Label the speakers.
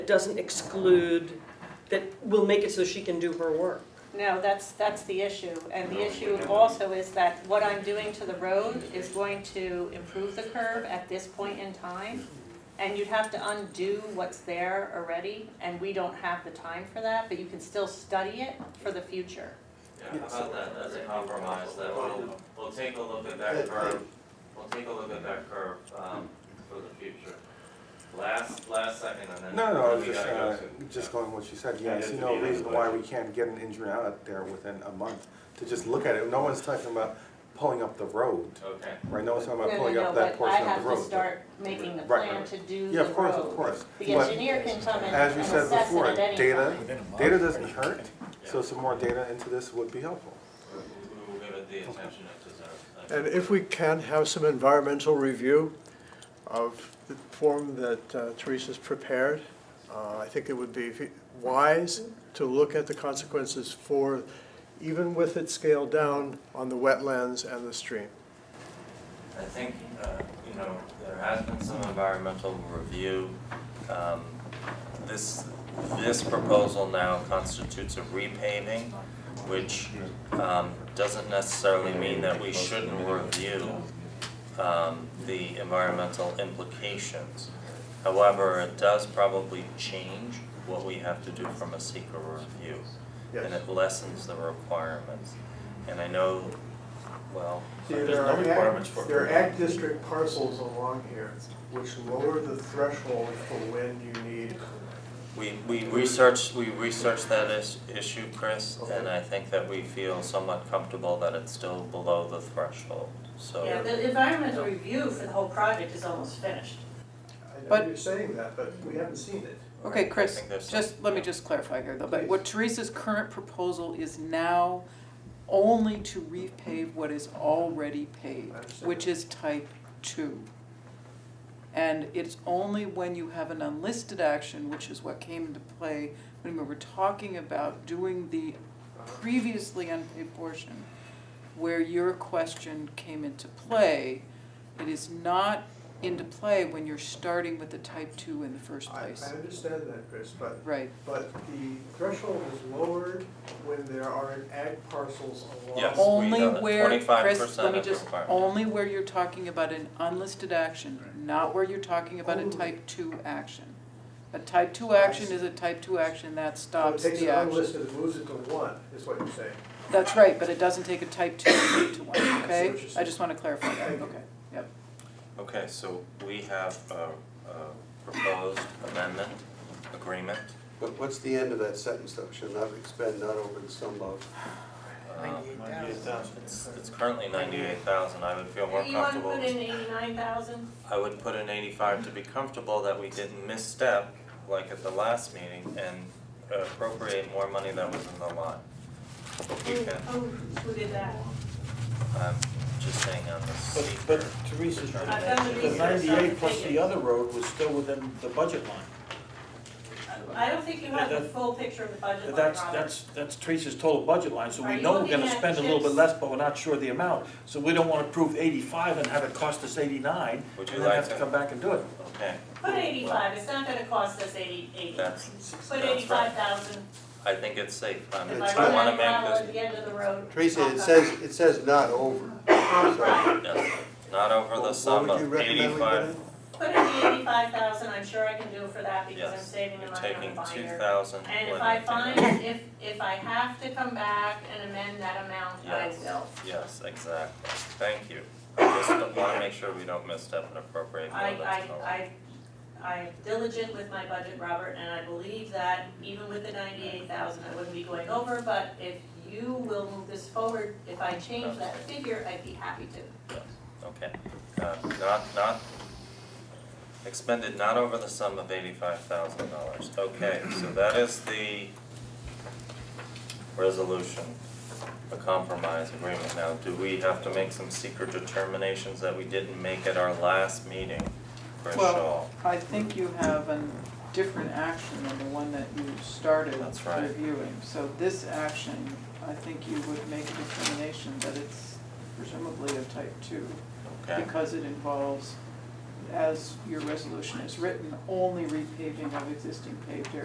Speaker 1: It doesn't exclude, that will make it so she can do her work.
Speaker 2: No, that's, that's the issue, and the issue also is that what I'm doing to the road is going to improve the curve at this point in time, and you'd have to undo what's there already, and we don't have the time for that, but you can still study it for the future.
Speaker 3: Yeah, how about that, as a compromise, that we'll, we'll take a look at that curve, we'll take a look at that curve, um, for the future. Last, last second, and then.
Speaker 4: No, no, I
Speaker 3: then
Speaker 4: was
Speaker 3: we
Speaker 4: just,
Speaker 3: gotta go
Speaker 4: uh,
Speaker 3: to-
Speaker 4: just going what she said,
Speaker 3: Yeah,
Speaker 4: yeah, I
Speaker 3: it
Speaker 4: see
Speaker 3: is
Speaker 4: no
Speaker 3: the
Speaker 4: reason
Speaker 3: beginning.
Speaker 4: why we can't get an engineer out there within a month to just look at it, no one's talking about pulling up the road,
Speaker 3: Okay,
Speaker 4: right, no one's talking
Speaker 2: No,
Speaker 4: about
Speaker 2: no,
Speaker 4: pulling
Speaker 2: no,
Speaker 4: up that
Speaker 2: but I
Speaker 4: portion of
Speaker 2: have
Speaker 4: the road.
Speaker 2: to start making the
Speaker 4: Right,
Speaker 2: plan
Speaker 4: right.
Speaker 2: to do the road.
Speaker 4: Yeah, of course, of course,
Speaker 2: The
Speaker 4: but
Speaker 2: engineer can come and
Speaker 4: as you
Speaker 2: and
Speaker 4: said
Speaker 2: assess it
Speaker 4: before,
Speaker 2: at any time.
Speaker 4: data,
Speaker 5: Within a month.
Speaker 4: data doesn't hurt, so
Speaker 3: Yeah.
Speaker 4: some more data into this would be helpful.
Speaker 3: we we will give it the attention it deserves. Thank you.
Speaker 6: And if we can, have some environmental review of the form that uh, Teresa's prepared. Uh, I think it would be wise to look at the consequences for, even with it scaled down, on the wetlands and the stream.
Speaker 3: I think, uh, you know, there has been some environmental review. Um, This, this proposal now constitutes a repaving, which um, doesn't necessarily mean that we shouldn't review um, the environmental implications. However, it does probably change what we have to do from a secret review. And
Speaker 6: Yes.
Speaker 3: it lessens the requirements. And I know, well,
Speaker 7: See,
Speaker 5: There's
Speaker 7: there
Speaker 5: no
Speaker 7: are
Speaker 5: requirements
Speaker 7: ag,
Speaker 5: for-
Speaker 7: there are ag district parcels along here which lower the threshold for when you need.
Speaker 3: We, we researched, we researched that is, issue, Chris, and I think that we feel somewhat comfortable that it's still below the threshold, so.
Speaker 8: Yeah, the environmental review for the whole project is almost finished.
Speaker 7: I know
Speaker 9: But-
Speaker 7: you're saying that, but we haven't seen it.
Speaker 9: Okay,
Speaker 3: I
Speaker 9: Chris,
Speaker 3: think there's some-
Speaker 9: just, let me just clarify here though, but what Teresa's current proposal is now only to repave what is already paved,
Speaker 7: I understand.
Speaker 9: which is type two. And it's only when you have an unlisted action, which is what came into play when we were talking about doing the previously unpaid portion, where your question came into play. It is not into play when you're starting with the type two in the first
Speaker 7: I,
Speaker 9: place.
Speaker 7: I understand that, Chris, but,
Speaker 9: Right,
Speaker 7: but the threshold is lowered when there are ag parcels along.
Speaker 3: Yes. we
Speaker 9: only
Speaker 3: know that
Speaker 9: where,
Speaker 3: 25%
Speaker 9: Chris, let me
Speaker 3: of
Speaker 9: just,
Speaker 3: requirement.
Speaker 9: only where you're talking about an unlisted action, not where you're talking about a type two action. A type two action is a type two action, that
Speaker 7: So it
Speaker 9: stops
Speaker 7: takes
Speaker 9: the
Speaker 7: an
Speaker 9: action.
Speaker 7: unlisted, and moves it to one, is what you're saying.
Speaker 9: That's right, but it doesn't take a type two to one, okay?
Speaker 7: what you're saying.
Speaker 9: I just wanna clarify that,
Speaker 7: Thank you.
Speaker 9: okay, yep.
Speaker 3: Okay, so we have a, a proposed amendment, agreement,
Speaker 10: But what's the end of that sentence though? Shall not expend not over the sum of.
Speaker 3: um, it's, it's currently ninety-eight thousand, I would feel more
Speaker 8: You wanna
Speaker 3: comfortable.
Speaker 8: put in eighty-nine thousand?
Speaker 3: I would put in eighty-five to be comfortable that we didn't misstep, like at the last meeting, and appropriate more money that was in the line. If we can,
Speaker 8: Who, Oh, who did that?
Speaker 3: I'm just saying on the
Speaker 5: But,
Speaker 3: secret.
Speaker 5: but Teresa's,
Speaker 8: I've done the
Speaker 5: the
Speaker 8: research, I'm
Speaker 5: ninety-eight plus
Speaker 8: thinking.
Speaker 5: the other road was still within the budget line.
Speaker 8: I don't think you have the
Speaker 5: That-
Speaker 8: full picture of the budget line,
Speaker 5: That's,
Speaker 8: Robert.
Speaker 5: that's, that's Teresa's total budget line, so
Speaker 8: Are
Speaker 5: we
Speaker 8: you
Speaker 5: know we're
Speaker 8: looking
Speaker 5: gonna
Speaker 8: at
Speaker 5: spend a little bit
Speaker 8: chips?
Speaker 5: less, but we're not sure the amount. So we don't wanna prove eighty-five and have it cost us eighty-nine,
Speaker 3: Would
Speaker 5: and
Speaker 3: you
Speaker 5: then
Speaker 3: like
Speaker 5: have to
Speaker 3: to-
Speaker 5: come back and do it.
Speaker 3: Okay,
Speaker 8: Put eighty-five, it's not gonna cost us eighty, eighty.
Speaker 3: that's,
Speaker 8: Put
Speaker 3: right.
Speaker 8: eighty-five thousand,
Speaker 3: I think it's safe, I'm,
Speaker 8: if
Speaker 10: It's-
Speaker 8: I
Speaker 3: I
Speaker 8: run out
Speaker 3: wanna
Speaker 8: of gravel at
Speaker 3: make
Speaker 8: the end of the road.
Speaker 10: Teresa,
Speaker 8: I'll
Speaker 10: it
Speaker 8: come.
Speaker 10: says, it says not over. So,
Speaker 3: this, yes, not over
Speaker 10: What
Speaker 3: the
Speaker 10: would
Speaker 3: sum
Speaker 10: you
Speaker 3: of
Speaker 10: recommend we
Speaker 3: eighty-five.
Speaker 10: get in?
Speaker 8: Put in the eighty-five thousand, I'm sure I can do it for that because I'm
Speaker 3: Yes,
Speaker 8: saving the
Speaker 3: you're
Speaker 8: money on the
Speaker 3: taking two
Speaker 8: binder.
Speaker 3: thousand.
Speaker 8: And if I find, if, if I have to come back and amend that amount, I
Speaker 3: Yes.
Speaker 8: will.
Speaker 3: Yes, exactly, thank you. I just don't wanna make sure we don't misstep and appropriate more
Speaker 8: I,
Speaker 3: than the line.
Speaker 8: I, I, I'm diligent with my budget, Robert, and I believe that even with the ninety-eight thousand, I wouldn't be going over, but if you will move this forward, if I change that figure, I'd be happy to.
Speaker 3: Okay, uh, not, not, expended not over the sum of eighty-five thousand dollars. Okay, so that is the resolution, a compromise agreement. Now, do we have to make some secret determinations that we didn't make at our last meeting for Shaw?
Speaker 9: Well, I think you have a different action than the one that you started
Speaker 3: That's right.
Speaker 9: reviewing. So this action, I think you would make a determination that it's presumably a type two.
Speaker 3: Okay,
Speaker 9: because it involves as your resolution is written, only repaving of existing paved areas.